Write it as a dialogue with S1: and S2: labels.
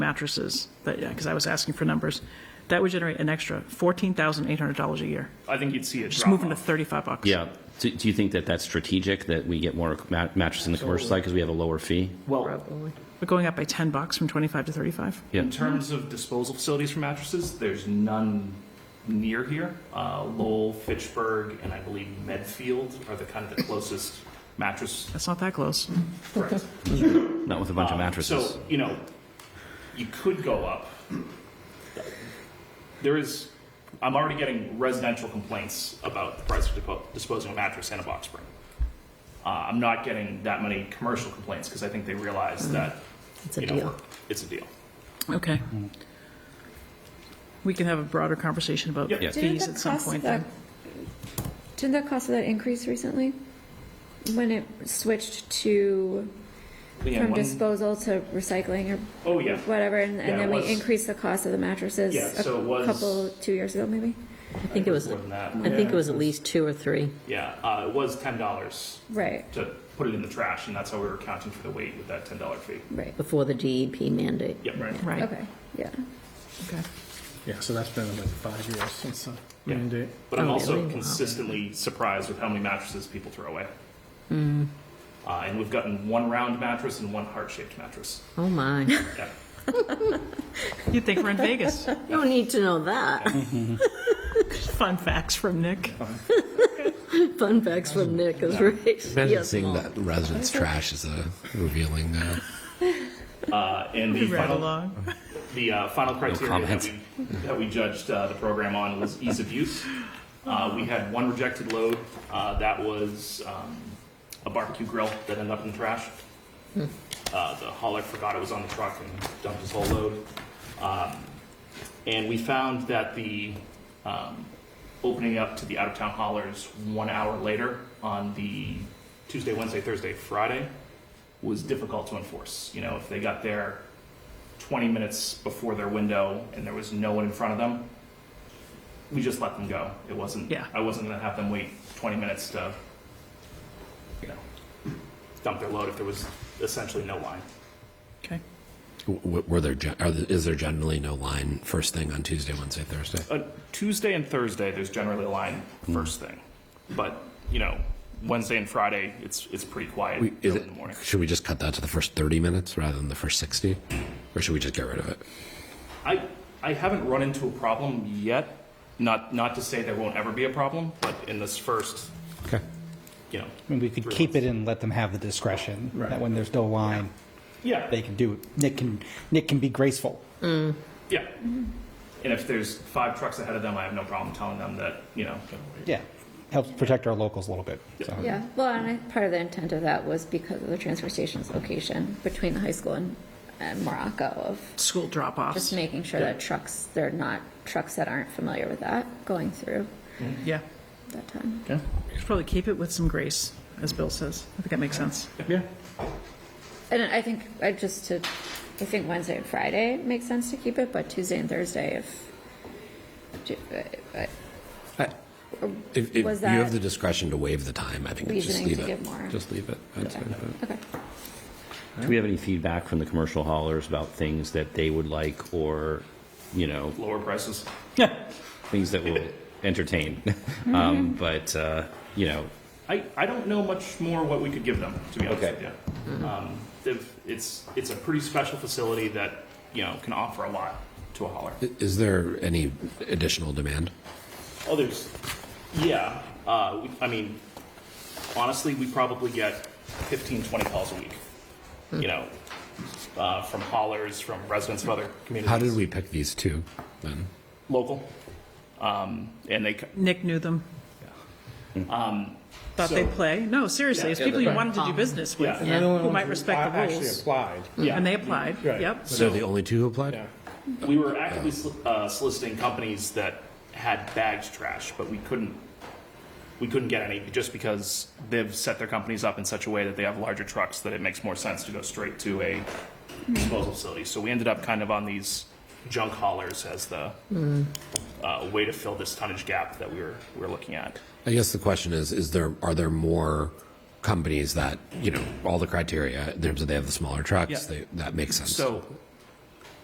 S1: mattresses, that, yeah, because I was asking for numbers, that would generate an extra $14,800 a year,
S2: I think you'd see it
S1: just
S2: drop
S1: moving to
S2: off.
S1: 35 bucks.
S3: Yeah. Do, do you think that that's strategic, that we get more ma- mattresses in the commercial side because we have a lower fee?
S2: Well,
S1: We're going up by 10 bucks from 25 to 35.
S3: Yeah.
S2: in terms of disposal facilities for mattresses, there's none near here. Uh, Lowell, Fitchburg, and I believe Medfield are the kind of the closest mattress.
S1: That's not that close.
S2: Correct.
S3: Not with a bunch of
S2: Um,
S3: mattresses.
S2: So, you know, you could go up. There is, I'm already getting residential complaints about the price of depo- disposing of a mattress in a box spring. Uh, I'm not getting that many commercial complaints because I think they realize that,
S4: Mm, It's a
S2: you know,
S4: deal.
S2: we're- it's a deal.
S1: Okay. We can have a broader conversation about
S2: Yep. Yeah.
S5: Didn't
S1: fees
S5: the
S1: at some
S5: cost of
S1: point.
S5: that,
S1: then.
S5: didn't the cost of that increase recently? When it switched to,
S2: Leanne,
S5: from
S2: one-
S5: disposal to recycling or
S2: Oh, yeah.
S5: whatever, and
S2: Yeah, it
S5: and then we
S2: was-
S5: increased the cost of the mattresses
S2: Yeah, so it
S5: a
S2: was-
S5: couple, two years ago maybe?
S4: I think it was,
S2: More
S4: I
S2: than that.
S4: think it was at least two or three.
S2: Yeah, uh, it was ten dollars
S5: Right,
S2: to put it in the trash, and that's how we were accounting for the weight with that ten dollar fee.
S5: right,
S4: before the DEP mandate.
S2: Yep. Right.
S1: Right,
S5: okay, yeah.
S1: okay.
S6: Yeah, so that's been like five years since the
S2: Yeah.
S6: mandate.
S2: But I'm
S4: Oh,
S2: also
S4: really? Wow.
S2: consistently surprised with how many mattresses people throw away.
S4: Mm.
S2: Uh, and we've gotten one round mattress and one heart shaped mattress.
S4: Oh, my.
S2: Yeah.
S1: You'd think we're in Vegas.
S4: You don't need to know that.
S1: Fun facts from Nick.
S4: Fun facts from Nick is right.
S7: Imagine
S4: Yes,
S7: seeing
S4: Mom.
S7: that residents' trash is a revealing. Uh,
S2: Uh, and the
S1: Right
S2: final,
S1: along.
S2: the uh, final criteria that
S3: comment.
S2: we, that we judged uh, the program on was ease of use. Uh, we had one rejected load. Uh, that was um, a barbecue grill that ended up in the trash. Uh, the hauler forgot it was on the truck and dumped his whole load. Um, and we found that the um, opening up to the out of town haulers one hour later on the Tuesday, Wednesday, Thursday, Friday was difficult to enforce. You know, if they got there 20 minutes before their window and there was no one in front of them, we just let them go. It wasn't,
S1: Yeah.
S2: I wasn't going to have them wait 20 minutes to, you know, dump their load if there was essentially no line.
S1: Okay.
S7: w- w- were there? gen- Are there is there generally no line first thing on Tuesday, Wednesday, Thursday?
S2: Uh, Tuesday and Thursday, there's generally a line first thing, but you know, Wednesday and Friday, it's it's pretty quiet
S7: We, is
S2: in
S7: it,
S2: the morning.
S7: should we just cut that to the first thirty minutes rather than the first sixty, or should we just get rid of it?
S2: I I haven't run into a problem yet. Not not to say there won't ever be a problem, but in this first,
S7: Okay.
S2: you know,
S8: I mean, we could keep it and let them have the discretion, that when there's no line,
S2: yeah,
S8: they can do it. Nick can, Nick can be graceful.
S2: yeah. And if there's five trucks ahead of them, I have no problem telling them that you know.
S8: Yeah, helps protect our locals a little bit, so.
S5: Yeah, well, and I, part of the intent of that was because of the transfer station's location between the high school and, and Morocco of
S1: School
S5: just
S1: drop-offs.
S5: making sure that trucks, they're not, trucks that aren't familiar with that going through
S1: Yeah.
S5: that time.
S1: Should probably keep it with some grace, as Bill says. I think that makes sense.
S5: And I think, I just to, I think Wednesday and Friday makes sense to keep it, but Tuesday and Thursday if, do- uh, uh,
S7: If, if
S5: Was
S7: you have
S5: that
S7: the discretion to waive the time, I think it's just
S5: reasoning
S7: leave
S5: to
S7: it.
S5: give more.
S7: Just leave it. I'd say.
S5: Okay,
S3: Do we have any feedback from the commercial haulers about things that they would like or, you know,
S2: Lower prices.
S3: things that will entertain?
S2: Mm-hmm.
S3: um, but, uh, you know,
S2: I, I don't know much more what we could give them, to be honest
S3: Okay.
S2: with you. Um, they've- it's, it's a pretty special facility that, you know, can offer a lot to a hauler.
S7: I- Is there any additional demand?
S2: Oh, there's, yeah, uh, we- I mean, honestly, we probably get 15, 20 calls a week,
S1: Hmm.
S2: you know, uh, from haulers, from residents of other communities.
S7: How did we pick these two? Then
S2: Local. Um, and they, c-
S1: Nick knew them. Thought they'd
S2: Um, So-
S1: play. No, seriously, it's people you wanted to do business with,
S2: Yeah.
S1: who might respect the
S6: Um, Actually
S1: rules.
S6: applied.
S2: yeah.
S1: Hmm. And they applied,
S6: Right.
S1: yep.
S7: so the only two who applied.
S6: Yeah.
S2: We were actively sol- uh, soliciting companies that had bagged trash, but we couldn't, we couldn't get any just because they've set their companies up in such a way that they have larger trucks that it makes more sense to go straight to a disposal facility. So we ended up kind of on these junk haulers as the uh, way to fill this tonnage gap that we were, we were looking at.
S7: I guess the question is: Is there are there more companies that you know all the criteria in terms of they have the smaller trucks?
S2: Yeah.
S7: They, that makes sense.
S2: So